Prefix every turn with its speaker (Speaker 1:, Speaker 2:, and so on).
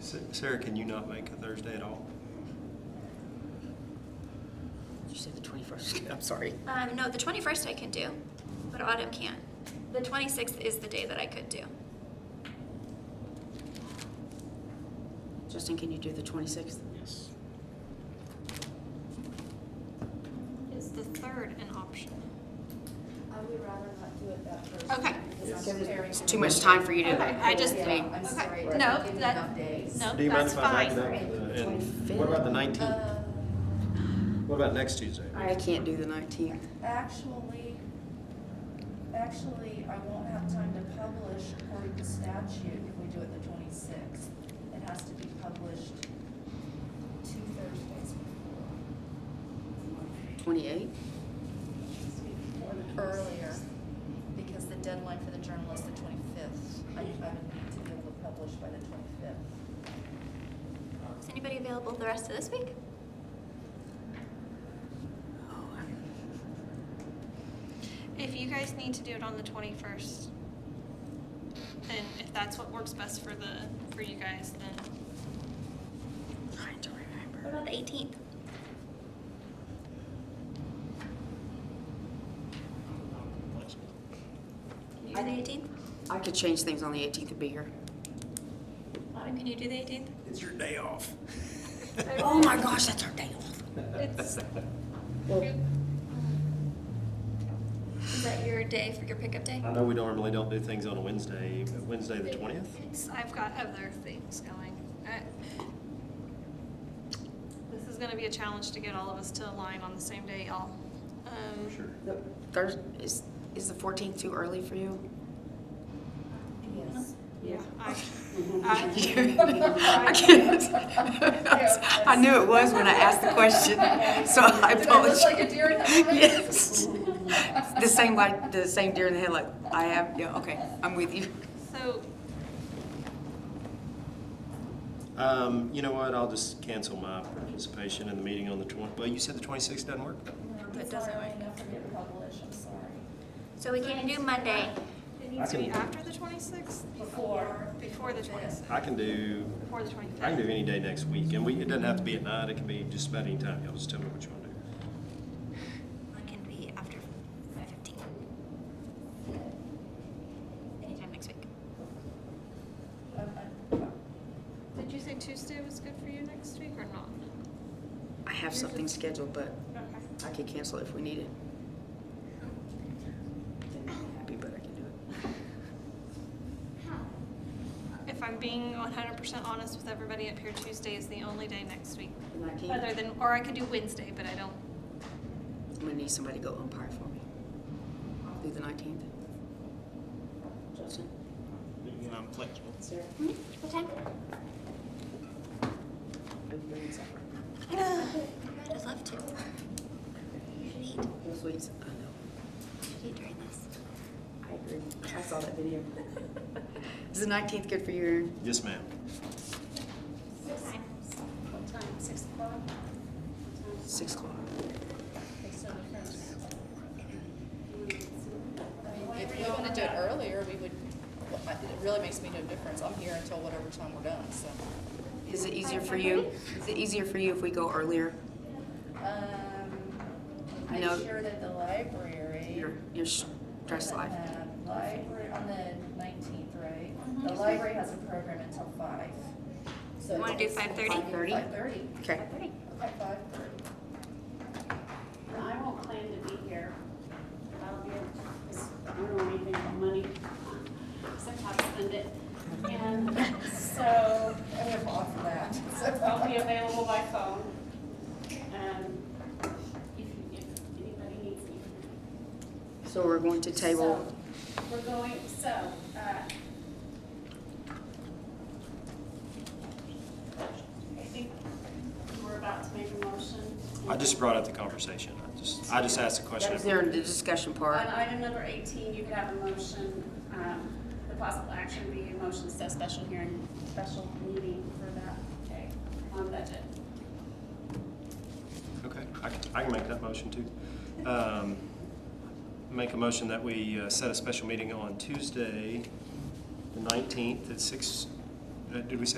Speaker 1: Sa- Sarah, can you not make a Thursday at all?
Speaker 2: You said the twenty-first, I'm sorry.
Speaker 3: Um, no, the 21st I can do, but autumn can't. The 26th is the day that I could do.
Speaker 2: Justin, can you do the twenty-sixth?
Speaker 4: Yes.
Speaker 3: Is the 3rd an option?
Speaker 5: I would rather not do it that first.
Speaker 3: Okay.
Speaker 5: week because I'm tearing
Speaker 2: It's
Speaker 5: my-
Speaker 2: too much time for you to.
Speaker 3: Okay, I just-
Speaker 5: Yeah,
Speaker 2: mean,
Speaker 5: I'm
Speaker 3: okay.
Speaker 5: sorry.
Speaker 3: No,
Speaker 5: I'm giving
Speaker 3: that-
Speaker 5: enough days.
Speaker 3: no.
Speaker 1: Do you mind
Speaker 3: That's
Speaker 1: if I back
Speaker 3: fine.
Speaker 1: it up?
Speaker 5: Right.
Speaker 1: And What about the nineteenth?
Speaker 5: Uh,
Speaker 1: What about next Tuesday?
Speaker 2: I can't do the nineteenth.
Speaker 5: Actually, actually, I won't have time to publish according to statute if we do it the twenty-sixth. It has to be published two Thursdays before.
Speaker 2: Twenty-eighth?
Speaker 5: earlier, because the deadline for the journal is the twenty-fifth. I, I would need to be able to publish by the twenty-fifth.
Speaker 3: Is anybody available the rest of this week?
Speaker 2: Oh,
Speaker 6: If you guys need to do it on the twenty-first, then if that's what works best for the, for you guys, then
Speaker 2: Trying to
Speaker 3: What
Speaker 2: remember.
Speaker 3: about the 18th? Can you do
Speaker 2: I
Speaker 3: the
Speaker 2: think-
Speaker 3: 18th?
Speaker 2: I could change things on the eighteenth to be here.
Speaker 3: Autumn, can you do the 18th?
Speaker 1: It's your day off.
Speaker 2: Oh my gosh, that's our day off.
Speaker 6: it's,
Speaker 3: Is that your day for your pickup day?
Speaker 1: I know we normally don't do things on a Wednesday, but Wednesday the twentieth?
Speaker 6: it's, I've got other things going. I- This is gonna be a challenge to get all of us to align on the same day, y'all. Um,
Speaker 1: Sure.
Speaker 2: Thursday, is, is the fourteenth too early for you?
Speaker 5: Yes.
Speaker 6: Yeah. I, I,
Speaker 2: I can't. I knew it was when I asked the question, so I
Speaker 5: Did I
Speaker 2: apologize.
Speaker 5: look like a deer in the headlights?
Speaker 2: Yes. The same like, the same deer in the headlight. I have, yeah, okay, I'm with you.
Speaker 6: so,
Speaker 1: Um, you know what, I'll just cancel my participation in the meeting on the twen- well, you said the twenty-sixth doesn't work?
Speaker 3: It doesn't
Speaker 5: Sorry,
Speaker 3: work.
Speaker 5: I forget to publish, I'm sorry.
Speaker 3: So we can do Monday.
Speaker 6: it needs to
Speaker 1: can-
Speaker 6: be after the twenty-sixth,
Speaker 5: Before.
Speaker 6: before the twenty-sixth,
Speaker 1: I can do,
Speaker 6: before the
Speaker 1: I can do
Speaker 6: twenty-fifth.
Speaker 1: any day next week, and we, it doesn't have to be at night, it can be just about any time, y'all just tell me what you wanna do.
Speaker 3: It can be after 5:15. Anytime next week.
Speaker 5: uh,
Speaker 6: Did you say Tuesday was good for you next week or not?
Speaker 2: I have something scheduled, but
Speaker 6: Okay.
Speaker 2: I can cancel it if we need it. Happy, but I can do it.
Speaker 6: If I'm being 100% honest with everybody up here, Tuesday is the only day next week.
Speaker 2: The
Speaker 6: Other
Speaker 2: 19th,
Speaker 6: than, or I could do Wednesday, but I don't.
Speaker 2: I'm gonna need somebody to go umpire for me. I'll do the nineteenth. Justin?
Speaker 4: I'm flexible.
Speaker 2: Sarah?
Speaker 3: Hmm? What time?
Speaker 2: Are you bringing supper?
Speaker 3: I'd just love to. You should eat. You
Speaker 2: No sweets? I know.
Speaker 3: should eat during this.
Speaker 2: I agree. I saw that video. Is the nineteenth good for you, Erin?
Speaker 1: Yes, ma'am.
Speaker 2: Six o'clock.
Speaker 5: If we wanna do it earlier, we would, it really makes me no difference, I'm here until whatever time we're done, so.
Speaker 2: Is it easier for you? Is it easier for you if we go earlier? No.
Speaker 3: Um,
Speaker 5: I'm sure that the library.
Speaker 2: Your, your stress life?
Speaker 5: um, Library, on the nineteenth, right? The library has a program until five. So
Speaker 3: Wanna do 5:30?
Speaker 5: Five thirty,
Speaker 2: Okay.
Speaker 5: okay, five thirty.
Speaker 7: And I won't claim to be here. I'll be, I don't know anything about money, so I have to spend it. And so
Speaker 5: I have off that.
Speaker 7: I'll be available by phone. Um, if, if anybody needs me.
Speaker 2: So we're going to table,
Speaker 7: So, We're going, so, uh, I think we're about to make a motion.
Speaker 1: I just brought up the conversation, I just, I just asked a question.
Speaker 2: is there the discussion
Speaker 7: On
Speaker 2: part?
Speaker 7: item number 18, you could have a motion, um, the possible action would be a motion to set special hearing, special meeting for that day on budget.
Speaker 1: Okay, I can, I can make that motion too. Um, Make a motion that we uh, set a special meeting on Tuesday, the nineteenth at six, uh, did we say